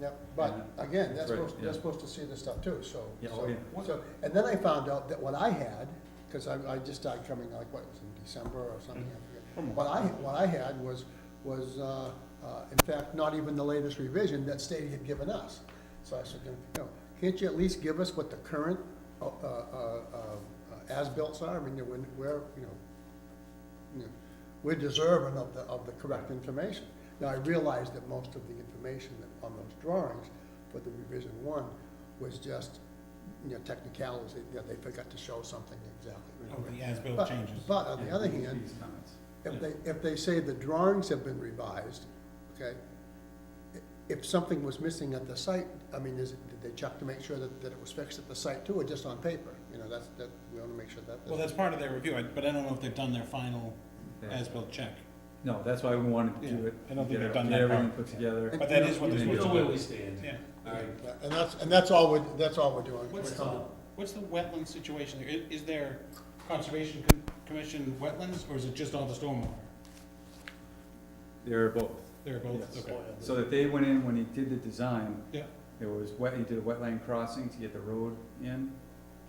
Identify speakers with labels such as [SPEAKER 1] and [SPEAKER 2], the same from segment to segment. [SPEAKER 1] Yeah, but again,
[SPEAKER 2] That's
[SPEAKER 1] that's
[SPEAKER 2] right,
[SPEAKER 1] supposed,
[SPEAKER 2] yeah.
[SPEAKER 1] they're supposed to see this stuff too, so.
[SPEAKER 2] Yeah,
[SPEAKER 1] so-
[SPEAKER 2] oh, yeah.
[SPEAKER 1] So, and then I found out that what I had, because I, I just started coming, like, what, it was in December or something, I forget. What I, what I had was, was, uh, uh, in fact, not even the latest revision that state had given us. So I said, you know, can't you at least give us what the current, uh, uh, uh, uh, as-bills are, I mean, when, where, you know, you know, we're deserving of the, of the correct information. Now, I realize that most of the information that- on those drawings for the revision one was just, you know, technicalities, you know, they forgot to show something exactly.
[SPEAKER 3] Of the as-built
[SPEAKER 1] But-
[SPEAKER 3] Oh, changes.
[SPEAKER 1] But on the other hand,
[SPEAKER 2] These comments.
[SPEAKER 1] if they, if they say the drawings have been revised, okay, i- if something was missing at the site, I mean, is, it- did they check to make sure that, that it was fixed at the site too, or just on paper? You know, that's, that, we wanna make sure that.
[SPEAKER 3] Well, that's part of their review, I- but I don't know if they've done their final
[SPEAKER 2] Yeah.
[SPEAKER 3] as-built check.
[SPEAKER 2] No, that's why we wanted to do
[SPEAKER 3] Yeah,
[SPEAKER 2] it.
[SPEAKER 3] I don't think
[SPEAKER 2] get
[SPEAKER 3] they've
[SPEAKER 2] it-
[SPEAKER 3] done
[SPEAKER 2] get
[SPEAKER 3] that
[SPEAKER 2] Everything
[SPEAKER 3] part.
[SPEAKER 2] put together.
[SPEAKER 3] But that is what
[SPEAKER 2] You
[SPEAKER 3] they're
[SPEAKER 2] know
[SPEAKER 3] supposed
[SPEAKER 4] where
[SPEAKER 3] to
[SPEAKER 4] we
[SPEAKER 3] do.
[SPEAKER 4] stand.
[SPEAKER 3] Yeah.
[SPEAKER 4] All right.
[SPEAKER 1] And that's, and that's all we're, that's all we're doing.
[SPEAKER 3] What's
[SPEAKER 1] We're
[SPEAKER 3] the,
[SPEAKER 1] coming-
[SPEAKER 3] what's the wetland situation there? I- Is there Conservation Com- Commission wetlands, or is it just all the stormwater?
[SPEAKER 2] They're both.
[SPEAKER 3] They're both,
[SPEAKER 2] Yes.
[SPEAKER 3] okay.
[SPEAKER 2] So that they went in, when he did the design,
[SPEAKER 3] Yeah,
[SPEAKER 2] it was wet, he did a wetland crossing to get the road in,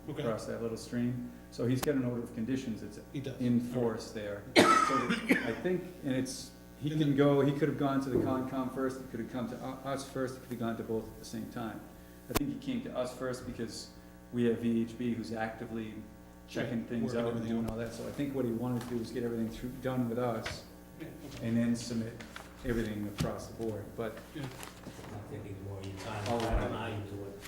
[SPEAKER 3] okay,
[SPEAKER 2] across that little stream. So he's got an order of conditions that's
[SPEAKER 3] he does.
[SPEAKER 2] in force there. So I think, and it's, he can go, he could have gone to the Concom first, he could have come to u- us first, he could have gone to both at the same time. I think he came to us first because we have VHB who's actively checking things
[SPEAKER 3] Working
[SPEAKER 2] out and
[SPEAKER 3] everything
[SPEAKER 2] doing all that. So I think what he wanted to do was get everything through, done with us
[SPEAKER 3] Yeah, okay.
[SPEAKER 2] and then submit everything across the board. But
[SPEAKER 4] I'm taking more of your time,
[SPEAKER 2] Oh,
[SPEAKER 4] I don't know
[SPEAKER 2] right.
[SPEAKER 4] how you do it.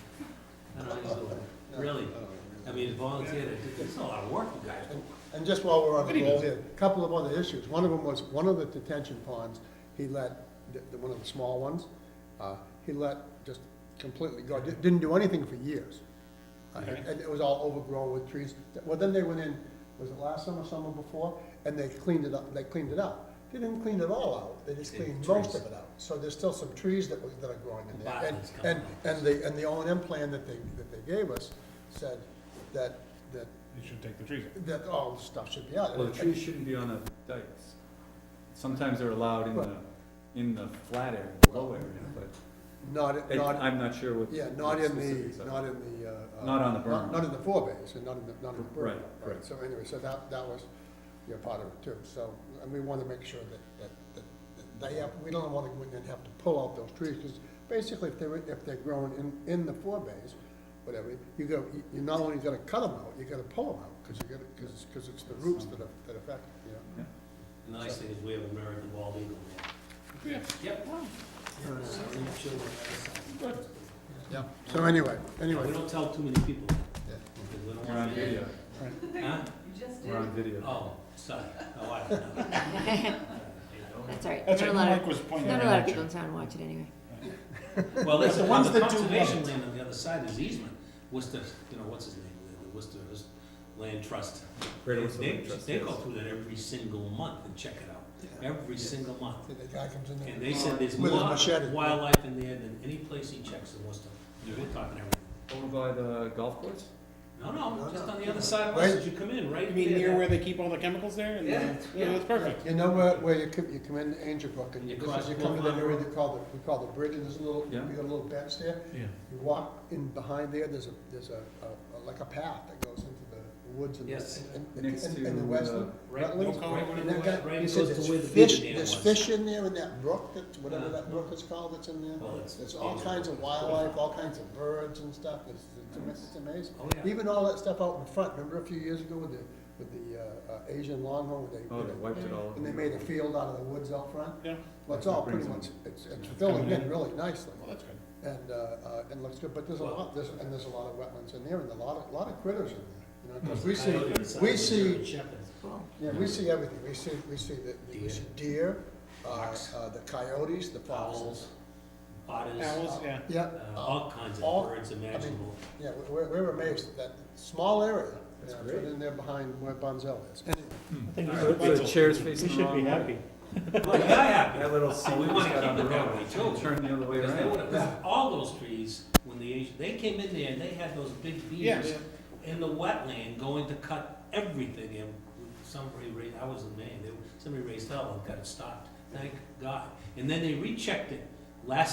[SPEAKER 4] I don't know how you do
[SPEAKER 1] No,
[SPEAKER 4] it, really.
[SPEAKER 1] no, no,
[SPEAKER 4] I
[SPEAKER 1] no.
[SPEAKER 4] mean, volunteer, it's- it's a lot of work, you guys. do.
[SPEAKER 1] And just while we're on
[SPEAKER 3] But
[SPEAKER 1] the
[SPEAKER 3] he
[SPEAKER 1] roll
[SPEAKER 3] does.
[SPEAKER 1] here, a couple of other issues. One of them was, one of the detention ponds, he let, the, the- one of the small ones, uh, he let just completely go, Di- didn't do anything for years. Uh, And and it was all overgrown with trees. Well, then they went in, was it last summer, summer before? And they cleaned it up, they cleaned it up. They didn't clean it all out, they just
[SPEAKER 4] They
[SPEAKER 1] cleaned
[SPEAKER 4] did
[SPEAKER 1] most
[SPEAKER 4] trees.
[SPEAKER 1] of it out. So there's still some trees that were, that are growing in there. And,
[SPEAKER 4] Botany's coming
[SPEAKER 1] and,
[SPEAKER 4] up.
[SPEAKER 1] and the, and the O and M plan that they, that they gave us said that, that
[SPEAKER 3] You should take the trees. out.
[SPEAKER 1] that all the stuff should be out.
[SPEAKER 2] Well, the trees shouldn't be on the dikes. Sometimes they're allowed in the, in the flat area, the low area, but
[SPEAKER 1] Not,
[SPEAKER 2] I-
[SPEAKER 1] not,
[SPEAKER 2] I'm not sure what.
[SPEAKER 1] yeah, not in
[SPEAKER 2] specifics
[SPEAKER 1] the,
[SPEAKER 2] of it.
[SPEAKER 1] not in the, uh. uh,
[SPEAKER 2] Not on the berm.
[SPEAKER 1] Not not in the forebays, and not in the, not in the berm.
[SPEAKER 2] Right, right.
[SPEAKER 1] So anyway, so that, that was, you know, part of it too, so, and we wanna make sure that, that, that- that they have, we don't wanna go in and have to pull out those trees, cause basically, if they were, if they're growing in, in the forebays, whatever, you go, you- you're not only gonna cut them out, you gotta pull them out, cause you gotta, cause, cause it's the roots that, are- that affect, you know.
[SPEAKER 4] The nice thing is we have American bald eagle there.
[SPEAKER 3] Yeah,
[SPEAKER 4] Yep. So we should-
[SPEAKER 3] Good.
[SPEAKER 1] Yeah, so anyway,
[SPEAKER 4] We
[SPEAKER 1] anyway,
[SPEAKER 4] don't tell too many people, that,
[SPEAKER 1] yeah.
[SPEAKER 4] because we don't
[SPEAKER 2] We're on
[SPEAKER 4] want to.
[SPEAKER 2] video,
[SPEAKER 4] Huh?
[SPEAKER 2] we're on video.
[SPEAKER 4] Oh, sorry, oh, I don't know.
[SPEAKER 5] That's all right.
[SPEAKER 3] That's right,
[SPEAKER 5] not a lot
[SPEAKER 3] Mike
[SPEAKER 5] of,
[SPEAKER 3] was pointing
[SPEAKER 5] not
[SPEAKER 3] that
[SPEAKER 5] a lot
[SPEAKER 3] out.
[SPEAKER 5] of people in
[SPEAKER 3] actually.
[SPEAKER 5] town watch it anyway.
[SPEAKER 4] Well,
[SPEAKER 3] But
[SPEAKER 4] that's
[SPEAKER 3] the
[SPEAKER 4] the
[SPEAKER 3] ones
[SPEAKER 4] one, the
[SPEAKER 3] that do
[SPEAKER 4] conservation
[SPEAKER 3] want it.
[SPEAKER 4] land on the other side is easement, Worcester, you know, what's his name, the Worcester Land Trust.
[SPEAKER 2] Great
[SPEAKER 4] They-
[SPEAKER 2] Western
[SPEAKER 4] they-
[SPEAKER 2] Trust,
[SPEAKER 4] They go
[SPEAKER 2] yes.
[SPEAKER 4] through that every single month and check it out,
[SPEAKER 1] Yeah.
[SPEAKER 4] every
[SPEAKER 2] Yes.
[SPEAKER 4] single month.
[SPEAKER 1] See, the guy comes in there
[SPEAKER 4] And they said there's
[SPEAKER 1] with
[SPEAKER 4] more
[SPEAKER 1] his machete.
[SPEAKER 4] wildlife in there than any place he checks in Worcester. We're talking everything.
[SPEAKER 2] Over by the golf course?
[SPEAKER 4] No, no,
[SPEAKER 1] No,
[SPEAKER 4] just
[SPEAKER 1] no.
[SPEAKER 4] on the other side of
[SPEAKER 1] Right.
[SPEAKER 4] Worcester, you come in, right?
[SPEAKER 3] You mean
[SPEAKER 4] there,
[SPEAKER 3] near
[SPEAKER 4] that-
[SPEAKER 3] where they keep all the chemicals there? And the-
[SPEAKER 4] Yeah,
[SPEAKER 3] Yeah,
[SPEAKER 4] yeah.
[SPEAKER 3] that's perfect.
[SPEAKER 1] You know where, where you come, you come in Angel Brook and
[SPEAKER 4] You
[SPEAKER 1] you this
[SPEAKER 4] cross
[SPEAKER 1] is- you come in that
[SPEAKER 4] Bull Run.
[SPEAKER 1] area they call the, we call the bridge and there's a little, you
[SPEAKER 2] Yeah.
[SPEAKER 1] got a little bench there.
[SPEAKER 3] Yeah.
[SPEAKER 1] You walk in behind there, there's a, there's a, a- a- like a path that goes into the woods and,
[SPEAKER 4] Yes.
[SPEAKER 1] and, and,
[SPEAKER 2] Next
[SPEAKER 1] and
[SPEAKER 2] to,
[SPEAKER 1] and the
[SPEAKER 2] uh,
[SPEAKER 1] western.
[SPEAKER 4] Right,
[SPEAKER 1] wetlands.
[SPEAKER 3] no comment,
[SPEAKER 1] And
[SPEAKER 3] whatever
[SPEAKER 1] that
[SPEAKER 3] it
[SPEAKER 1] guy-
[SPEAKER 3] was.
[SPEAKER 4] Right,
[SPEAKER 1] he
[SPEAKER 4] it
[SPEAKER 1] said
[SPEAKER 4] goes to
[SPEAKER 1] there's
[SPEAKER 4] where the
[SPEAKER 1] fish,
[SPEAKER 4] beaver dam
[SPEAKER 1] there's
[SPEAKER 4] was.
[SPEAKER 1] fish in there in that brook, that, whatever
[SPEAKER 4] Uh,
[SPEAKER 1] that brook is called that's in there.
[SPEAKER 4] Well, it's-
[SPEAKER 1] There's all kinds of wildlife, all kinds of birds and stuff, it's, it's ama- it's amazing.
[SPEAKER 4] Oh, yeah.
[SPEAKER 1] Even all that stuff out in front, remember a few years ago with the, with the, uh, uh, Asian longhorn, where they,
[SPEAKER 2] Oh,
[SPEAKER 1] where
[SPEAKER 2] they
[SPEAKER 1] they
[SPEAKER 2] wiped it all.
[SPEAKER 1] and they made a field out of the woods out front.
[SPEAKER 3] Yeah,
[SPEAKER 1] Well, it's all
[SPEAKER 2] That
[SPEAKER 1] pretty
[SPEAKER 2] brings
[SPEAKER 1] much,
[SPEAKER 2] them-
[SPEAKER 1] it's, it's filling in really nicely,
[SPEAKER 3] well, that's good.
[SPEAKER 1] and, uh, uh, and looks good, but there's a lot, there's, and there's a lot of wetlands in there, and a lot of, lot of critters in there. You know, 'cause we see,
[SPEAKER 4] Mm-hmm.
[SPEAKER 1] we see,
[SPEAKER 5] Cool.
[SPEAKER 1] yeah, we see everything, we see, we see the, the- we
[SPEAKER 4] Deer.
[SPEAKER 1] see deer, uh,
[SPEAKER 4] Fox.
[SPEAKER 1] uh, the coyotes, the foxes.
[SPEAKER 4] Owls, otters,
[SPEAKER 3] Owls, yeah.
[SPEAKER 1] Yeah,
[SPEAKER 4] uh,
[SPEAKER 1] uh,
[SPEAKER 4] all kinds of
[SPEAKER 1] all-
[SPEAKER 4] birds imaginable.
[SPEAKER 1] yeah, we- we're, we're amazed at that small area, you
[SPEAKER 2] That's
[SPEAKER 1] know,
[SPEAKER 2] great.
[SPEAKER 1] right in there behind where Bonzel is. Anyway,
[SPEAKER 2] So The chair's facing the wrong way.
[SPEAKER 4] Well, yeah, yeah.
[SPEAKER 2] That little seat
[SPEAKER 4] we
[SPEAKER 2] just
[SPEAKER 4] wanna
[SPEAKER 2] got on the
[SPEAKER 4] keep it that
[SPEAKER 2] road,
[SPEAKER 4] way,
[SPEAKER 2] it
[SPEAKER 4] too.
[SPEAKER 2] turned the other way
[SPEAKER 4] Because they
[SPEAKER 2] around.
[SPEAKER 4] would've- all those trees, when the Asian, they came in there and they had those big beams
[SPEAKER 3] Yeah.
[SPEAKER 4] in the wetland going to cut everything and somebody raised, I was in Maine, they, somebody raised hell and got it stopped, thank God. And then they rechecked it last